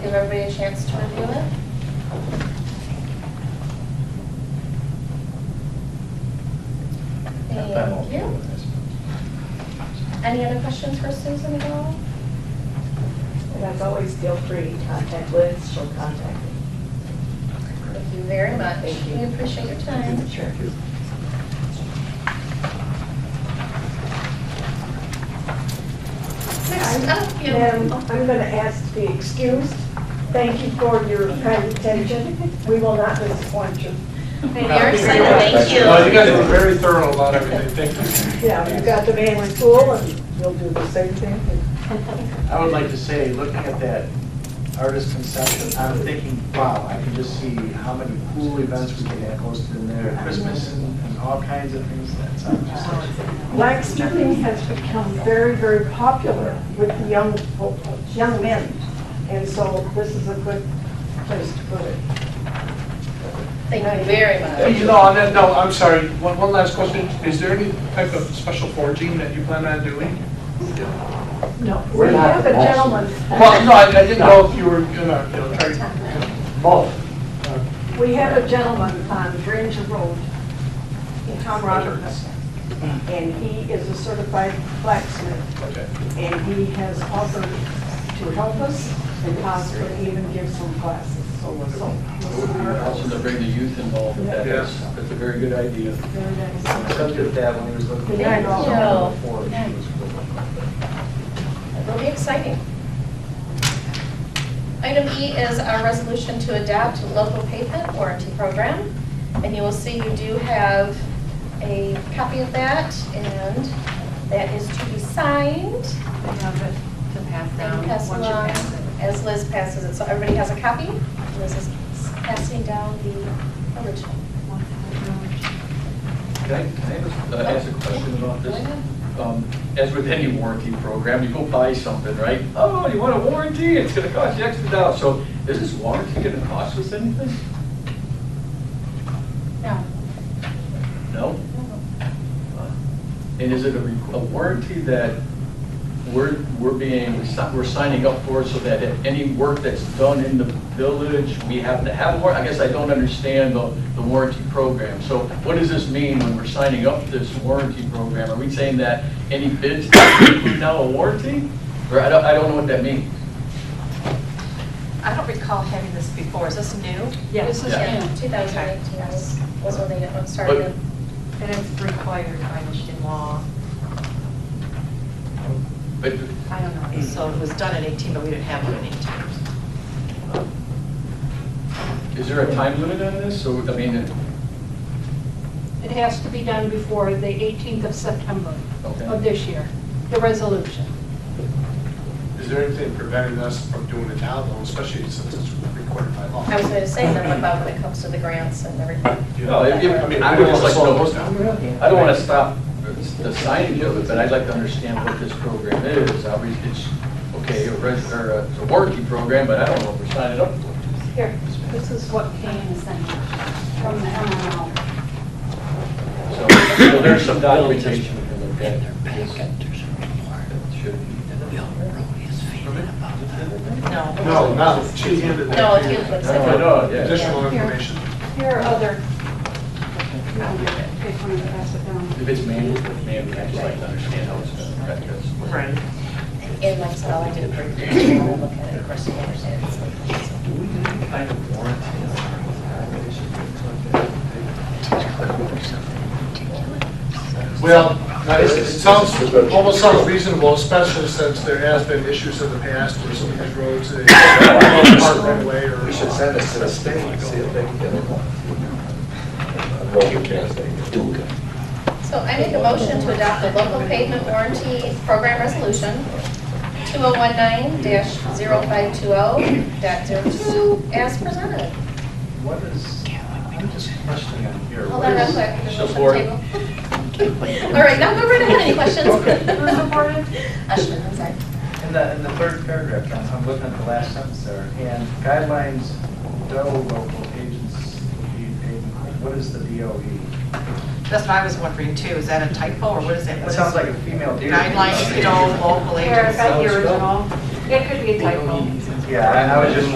give everybody a chance to review it. Thank you. Any other questions for Susan at all? And as always, feel free to contact Liz, she'll contact me. Thank you very much. Thank you. We appreciate your time. Sure. Next up, you have- And I'm going to ask to be excused. Thank you for your kind attention. We will not disappoint you. Hey, Eric, so thank Well, you you. guys were very thorough about everything, thank Yeah, you got the man in school and you'll do the same thing. I would like to say, looking at that artist conception, I'm thinking, wow, I can just see how many cool events we can have hosted in there, Christmas and and all kinds of things. That's, I'm just like, Blacksmithing has become very, very popular with the young, fol- young men. And so this is a good place to put it. Thank you very much. you. You know, on that note, I'm sorry, one, one last question, is there any type of special foraging that you plan on doing? No, we We're not have a the most- gentleman, Well, no, I I didn't know if you were gonna, you know, try to Both. we have a gentleman on Granger Road, Tom Rogers. And he is a certified blacksmith. Okay. And he has offered to help us and possibly even give some classes, so we'll so we'll see where it Also to goes. bring the youth involved with that, that's, Yes. that's a very good idea. Very I nice. looked at that when he was looking. Yeah, I know. Before, she was cool. It'll be exciting. Item E is our resolution to adopt local pavement warranty program. And you will see you do have a copy of that, and that is to be signed They have it to pass and down Um, once passed you along pass it. as Liz passes it. So everybody has a copy. Liz is passing down the original. Can I, can I just, uh, ask a question about Go this? ahead. Um, As with any warranty program, you go buy something, right? Oh, you want a warranty, it's gonna cost you extra dollars. So is this warranty gonna cost us anything? No. No? And is it a, re- a warranty that we're, we're being, we're signing up for so that if any work that's done in the village, we have to have a warranty? I guess I don't understand the, the warranty program. So what does this mean when we're signing up for this warranty program? Are we saying that any bids include now a warranty? Or I don't, I don't know what that means. I don't recall having this before. Is this new? Yes, Yeah, Yeah. 2018 was was when they started. But- And it's required by Michigan law. But I don't know. So it was done in 18, but we didn't have one in 18. is there a time limit on this? So, I mean, it- It has to be done before the 18th of September of okay. this year, the resolution. Is there anything preventing us from doing it now, though, especially since it's required by law? I was going to say nothing about when it comes to the grants and everything. No, it- it- I mean, I would just like to know. I don't want to stop the signage of it, but I'd like to understand what this program is. Obviously, it's, okay, a res- or a- it's a warranty program, but I don't know if we're signing up for it. Here, this is what came sent from the MML. So so there's some documentation we can look at. Should be. No. No, no, she handed that. No, to it you. looks No, like. I know, yeah. Additional information. Here are other. If you want to pass it down. If it's manual, it's manual, I'd just like to understand how it's done. Right, that's- Right. And like I said, all I did for you, I'll look at it, of course, you understand. it's like- Do we need any kind of warranty on our organization? Well, now, it it sounds, almost sounds reasonable, especially since there has been issues in the past where some of these roads, they park right away or. We should send this to the state and see if they can get it. So I make a motion to adopt the local pavement warranty program resolution 2019-0520.02 as presented. What is, I'm just questioning on here. Hold What on, real is- quick. there's a motion Support. table. All right, now go right ahead, any questions? Ashman, I'm sorry. In the, in the third paragraph, John, I'm looking at the last sentence there, and guidelines, DOE local agents, what is the E? DOE? That's what I was wondering too. Is that a typo or what is it? That sounds like a female E. deer. Guidelines, no local Here, I agency. got the original. It could be a typo. Yeah, I I was just